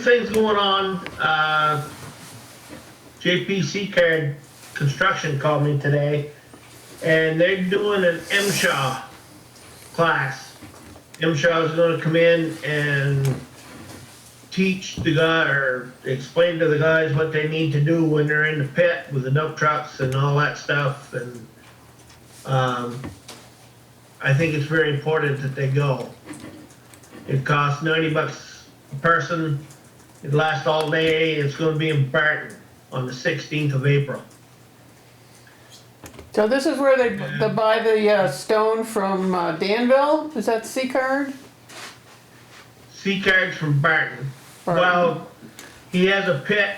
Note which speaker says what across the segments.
Speaker 1: things going on. Uh, JPC Card Construction called me today, and they're doing an MSHA class. MSHA is going to come in and teach the guy or explain to the guys what they need to do when they're in the pit with the dump trucks and all that stuff. And um, I think it's very important that they go. It costs 90 bucks a person. It lasts all day. It's going to be in Barton on the 16th of April.
Speaker 2: So this is where they, they buy the uh, stone from uh, Danville? Is that C card?
Speaker 1: Sea cards from Barton.
Speaker 2: Barton.
Speaker 1: Well, he has a pit.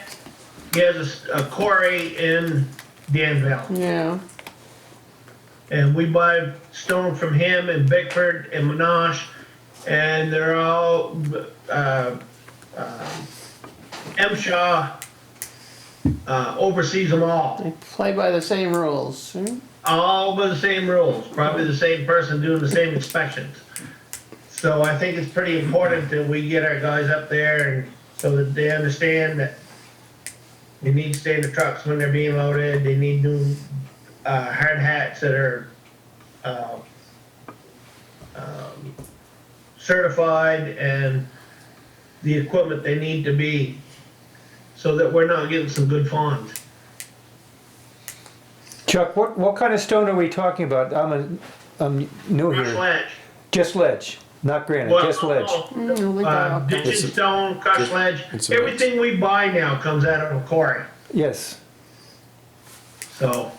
Speaker 1: He has a s- a, quarry in Danville,
Speaker 2: Yeah,
Speaker 1: and we buy stone from him in Bickford and Monash, and they're all uh, uh, M. Shaw uh, oversees them all,
Speaker 2: they play by the same rules. hmm?
Speaker 1: all by the same rules. Probably the same person doing the same inspections. So I think it's pretty important that we get our guys up there and so that they understand that they need to stay in the trucks when they're being loaded, they need new, uh, hard hats that are, uh, um, certified and the equipment they need to be, so that we're not getting some good fines.
Speaker 3: Chuck, what, what kind of stone are we talking about? I'm, a, I'm new
Speaker 1: Rush
Speaker 3: here.
Speaker 1: ledge.
Speaker 3: Just ledge, not granite,
Speaker 1: Well,
Speaker 3: just ledge.
Speaker 2: Mm, I think
Speaker 1: Uh,
Speaker 2: they're
Speaker 1: ditch and
Speaker 4: It's a-
Speaker 1: stone, crush
Speaker 4: it's-
Speaker 1: ledge,
Speaker 4: it's a-
Speaker 1: everything we buy now comes out of a quarry.
Speaker 3: Yes.
Speaker 1: So,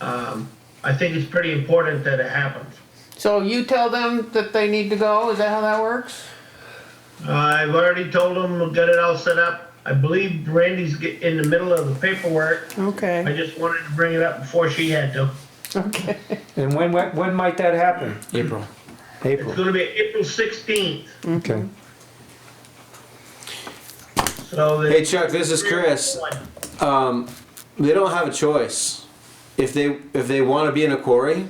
Speaker 1: um, I think it's pretty important that it happens.
Speaker 2: okay. So you tell them that they need to go? Is that how that works?
Speaker 1: I've already told them, we've got it all set up. I believe Randy's get- in the middle of the paperwork. I
Speaker 2: Okay,
Speaker 1: just wanted to bring it up before she had to.
Speaker 2: okay.
Speaker 3: And when, when, when might that happen?
Speaker 4: April.
Speaker 1: It's
Speaker 3: April.
Speaker 1: gonna be April sixteenth,
Speaker 3: Okay.
Speaker 1: so that.
Speaker 4: Hey Chuck, this is Chris. Um, they don't have a choice. If they if they want to be in a quarry,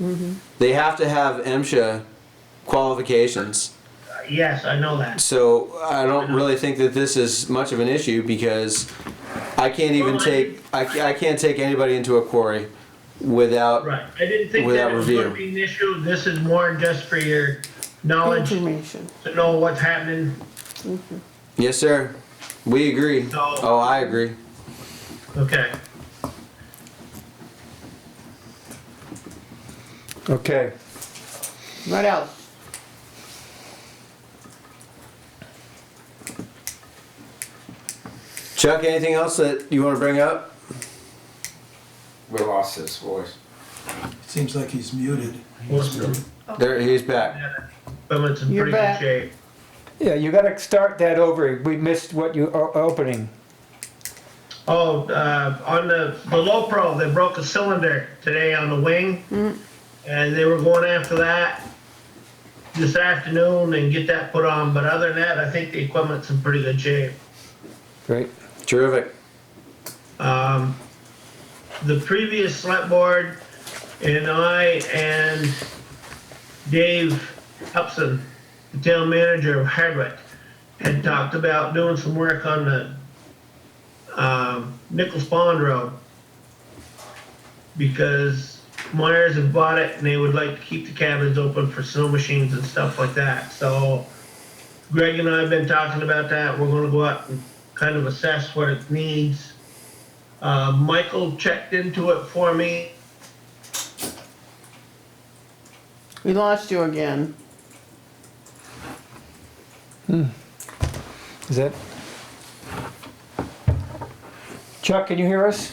Speaker 1: Mm-hmm.
Speaker 4: they have to have MSHA qualifications.
Speaker 1: Yes, I know that.
Speaker 4: So I don't really think that this is much of an issue because I can't even
Speaker 1: Well, I-
Speaker 4: take I, ca- I can't take anybody into a quarry without
Speaker 1: Right, I didn't think
Speaker 4: Without
Speaker 1: that was gonna
Speaker 4: review.
Speaker 1: be an issue. This is more just for your knowledge,
Speaker 2: Information.
Speaker 1: to know what's happening.
Speaker 4: Yes, sir. We agree.
Speaker 1: No.
Speaker 4: Oh, I agree.
Speaker 1: Okay,
Speaker 3: Okay.
Speaker 2: What else?
Speaker 4: Chuck, anything else that you want to bring up?
Speaker 5: We lost his voice.
Speaker 6: Seems like he's muted.
Speaker 1: well,
Speaker 4: There, he's back.
Speaker 1: but it's in
Speaker 2: You're
Speaker 1: pretty good
Speaker 2: back.
Speaker 1: shape.
Speaker 3: Yeah, you gotta start that over. We missed what you, o- opening.
Speaker 1: Oh, uh, on the, the low pro, they broke a cylinder today on the wing. And they were going after that this afternoon and get that put on, but other than that, I think the equipment's in pretty good shape.
Speaker 3: Great.
Speaker 4: Terrific.
Speaker 1: Um, the previous select board and I and Dave Upson, the town manager of Hardwick, had talked about doing some work on the, um, Nichols Pond Road. Because Myers had bought it and they would like to keep the cabins open for snow machines and stuff like that, so Greg and I have been talking about that, we're gonna go out and kind of assess what it needs. Uh, Michael checked into it for me.
Speaker 2: We lost you again.
Speaker 3: Is that? Chuck, can you hear us?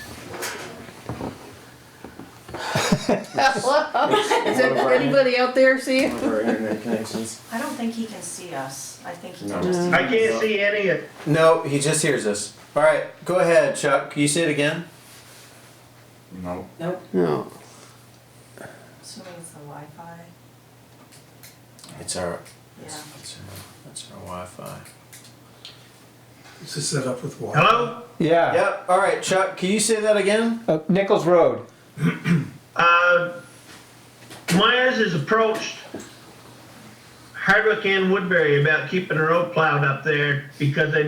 Speaker 2: Is that, anybody out there see? it?
Speaker 5: Our internet connections.
Speaker 7: I don't think he can see us. I think he
Speaker 5: No.
Speaker 7: can just.
Speaker 1: I can't see any of,
Speaker 4: No, he just hears us. All right, go ahead, Chuck. Can you say it again?
Speaker 5: No.
Speaker 7: Nope.
Speaker 2: No.
Speaker 7: Assuming it's the Wi-Fi.
Speaker 4: It's our,
Speaker 7: Yeah.
Speaker 4: it's our, it's our Wi-Fi.
Speaker 6: This is set up with water.
Speaker 1: hello?
Speaker 3: Yeah.
Speaker 4: Yep. All right, Chuck. Can you say that again?
Speaker 3: Uh, Nichols Road.
Speaker 1: Uh, Myers has approached Hardwick and Woodbury about keeping the road plowed up there because they